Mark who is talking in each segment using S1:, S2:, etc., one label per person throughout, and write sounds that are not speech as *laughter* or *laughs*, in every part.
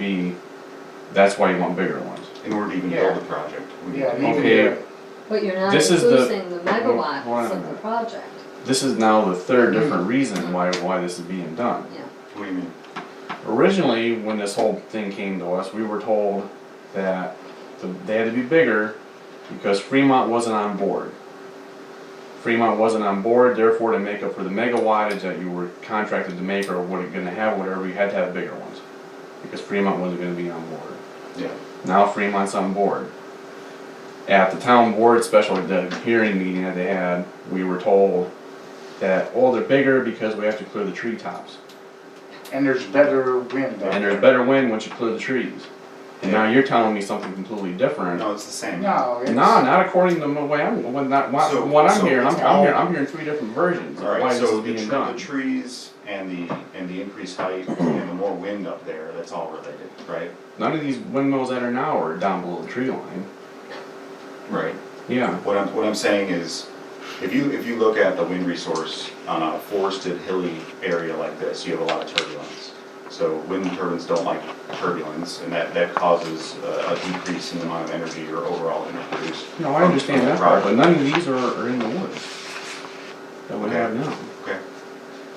S1: be, that's why you want bigger ones.
S2: in order to even build the project. we-
S3: Yeah, and even
S1: Okay.
S3: your,
S4: But you're not
S1: This is the-
S4: including the
S1: Hold on
S4: megawatts
S1: a
S4: of the
S1: minute.
S4: project,
S1: This is now the third different reason why, why this is being done.
S4: yeah.
S2: What do you mean?
S1: Originally, when this whole thing came to us, we were told that the- they had to be bigger because Fremont wasn't on board. Fremont wasn't on board, therefore to make up for the megawattage that you were contracted to make or what it gonna have, whatever, you had to have bigger ones. Because Fremont wasn't gonna be on board.
S2: Yeah,
S1: Now Fremont's on board. At the town board special the hearing meeting that they had, we were told that, oh, they're bigger because we have to clear the treetops.
S3: and there's better wind out
S1: And
S3: there.
S1: there's better wind once you clear the trees. And now you're telling me something completely different.
S2: no, it's the same.
S3: No, it's.
S1: No, not according to the way I'm, when that, what,
S2: So-
S1: what I'm
S2: so
S1: hearing, I'm,
S2: it's
S1: I'm
S2: all-
S1: hearing, I'm hearing three different versions of why
S2: Alright,
S1: this
S2: so
S1: is
S2: the
S1: being
S2: tre- the
S1: done.
S2: trees and the, and the increased height and the more wind up there, that's all related, right?
S1: None of these windmills that are now are down below the tree line.
S2: Right.
S1: Yeah,
S2: What I'm, what I'm saying is, if you, if you look at the wind resource on a forested hilly area like this, you have a lot of turbulence. So wind turbines don't like turbulence, and that, that causes uh, a decrease in the amount of energy or overall energy produced.
S1: no, I
S2: from-
S1: understand
S2: from the
S1: that part, but
S2: project.
S1: none of these are, are in the woods. That we have now.
S2: Okay.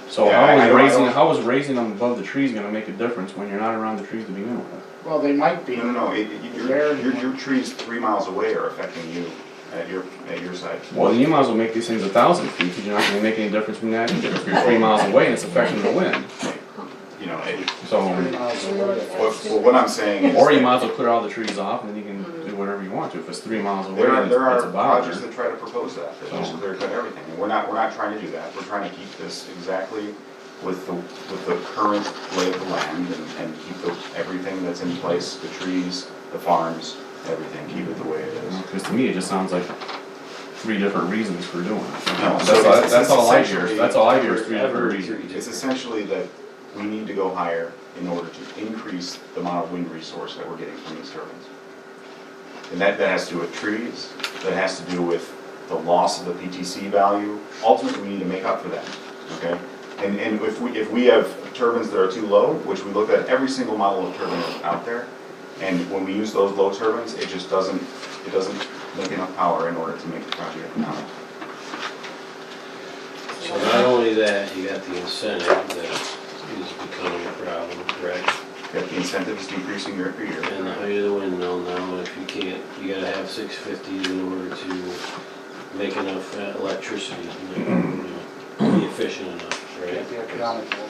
S1: So
S2: Yeah, I- I
S1: how is
S2: don't- I
S1: raising,
S2: don't-
S1: how is raising them above the trees gonna make a difference when you're not around the trees to begin with?
S3: Well, they might be.
S2: No, no, no, it, it- your,
S3: There.
S2: your, your trees three miles away are affecting you at your, at your side.
S1: Well, then you might as well make these things a thousand feet, because you're not gonna make any difference from that either, if you're three miles away and it's affecting the wind,
S2: You know, it,
S3: Three
S1: so.
S3: miles away.
S2: what, well, what I'm saying is.
S1: Or you
S2: that
S1: might as well clear all the trees off, and then you can do whatever you want to, if it's three miles away
S2: There are,
S1: and it's
S2: there
S1: it's
S2: are
S1: a
S2: projects
S1: bother.
S2: that try to propose that, that just
S1: So-
S2: clear cut everything, and we're not, we're not trying to do that, we're trying to keep this exactly with the, with the current lay of the land and, and keep the, everything that's in place, the trees, the farms, everything, keep it the way it is.
S1: Because to me, it just sounds like three different reasons for doing it.
S2: No,
S1: That's
S2: so
S1: all,
S2: it's-
S1: that's
S2: it's
S1: all I hear,
S2: essentially-
S1: that's all I hear is three
S5: Ever-
S1: different reasons.
S2: It's essentially that we need to go higher in order to increase the amount of wind resource that we're getting from these turbines. And that, that has to do with trees, that has to do with the loss of the PTC value. Ultimately, we need to make up for that, okay? And, and if we, if we have turbines that are too low, which we look at every single model of turbine out there, and when we use those low turbines, it just doesn't, it doesn't make enough power in order to make the project economic.
S5: So not only that, you got the incentive that is becoming a problem, correct?
S2: If the incentive is decreasing year after year.
S5: And the height of the windmill now, if you can't, you gotta have six fifty in order to make enough uh, electricity, to make, you know, be efficient enough,
S3: Can't be
S5: right?
S3: economical.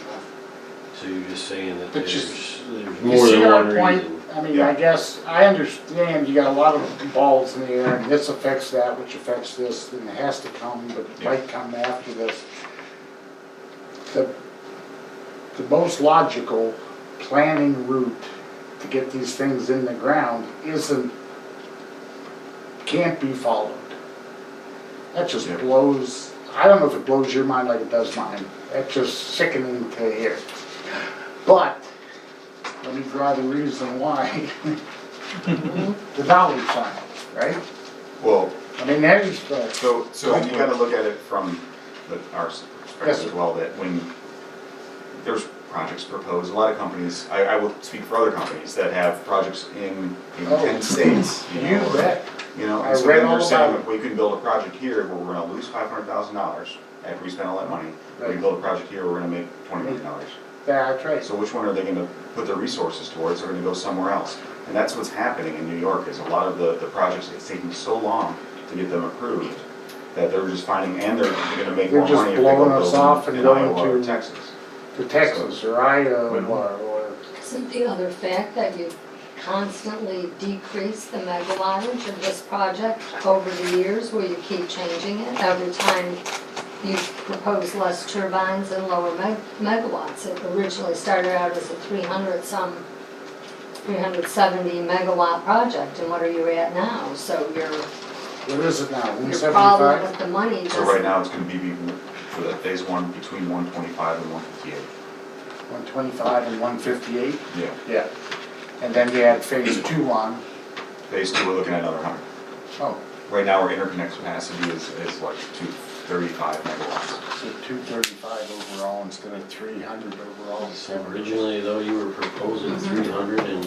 S5: So you're just saying that
S3: But
S5: there's,
S3: just-
S5: there's
S3: You
S5: more
S3: see
S5: than
S3: our
S5: one
S3: point?
S5: reason.
S3: I mean, I
S2: Yeah.
S3: guess, I understand you got a lot of balls in the air, and this affects that, which affects this, and it has to come, but it
S2: Yeah.
S3: might come after this. The, the most logical planning route to get these things in the ground isn't, can't be followed. That just
S2: Yeah.
S3: blows, I don't know if it blows your mind like it does mine, that's just sickening to hear. But, let me draw the reason why. *laughs* The dollar sign, right?
S2: Well,
S3: I mean, that is the,
S2: so, so you gotta look at it from the, our
S3: Yes,
S2: perspective
S3: sir.
S2: as well, that when there's projects proposed, a lot of companies, I, I will speak for other companies that have projects in, in
S3: Oh.
S2: ten states, you
S3: you
S2: know. or-
S3: bet,
S2: You know,
S3: I
S2: and so
S3: read
S2: then
S3: all
S2: they're saying,
S3: about it.
S2: we can build a project here where we're gonna lose five hundred thousand dollars after we spend all that money. We
S3: Right.
S2: can build a project here where we're gonna make twenty million dollars.
S3: that's right.
S2: So which one are they gonna put their resources towards, they're gonna go somewhere else? And that's what's happening in New York, is a lot of the, the projects, it's taking so long to get them approved, that they're just finding, and they're gonna make
S3: They're
S2: more
S3: just
S2: money if they
S3: blowing
S2: go
S3: us off
S2: build
S3: and
S2: in Iowa
S3: going
S2: or
S3: to-
S2: Texas.
S3: To Texas or Iowa or,
S4: Isn't the other fact that you constantly decrease the megawattage of this project over the years where you keep changing it? Every time you propose less turbines and lower meg- megawatts. It originally started out as a three hundred some, three hundred seventy megawatt project, and what are you at now? So your,
S3: what is it now, one
S4: your problem
S3: seventy-five?
S4: with the money
S2: So right
S4: doesn't
S2: now, it's gonna be, be- for that phase one, between one twenty-five and one fifty-eight.
S3: One twenty-five and one fifty-eight?
S2: Yeah.
S3: Yeah. And then you add phase two on,
S2: Phase two, we're looking at another hundred.
S3: oh,
S2: Right now, our interconnect capacity is, is like two thirty-five megawatts.
S3: so two thirty-five overall instead of three hundred overall.
S5: So originally though, you were proposing three hundred and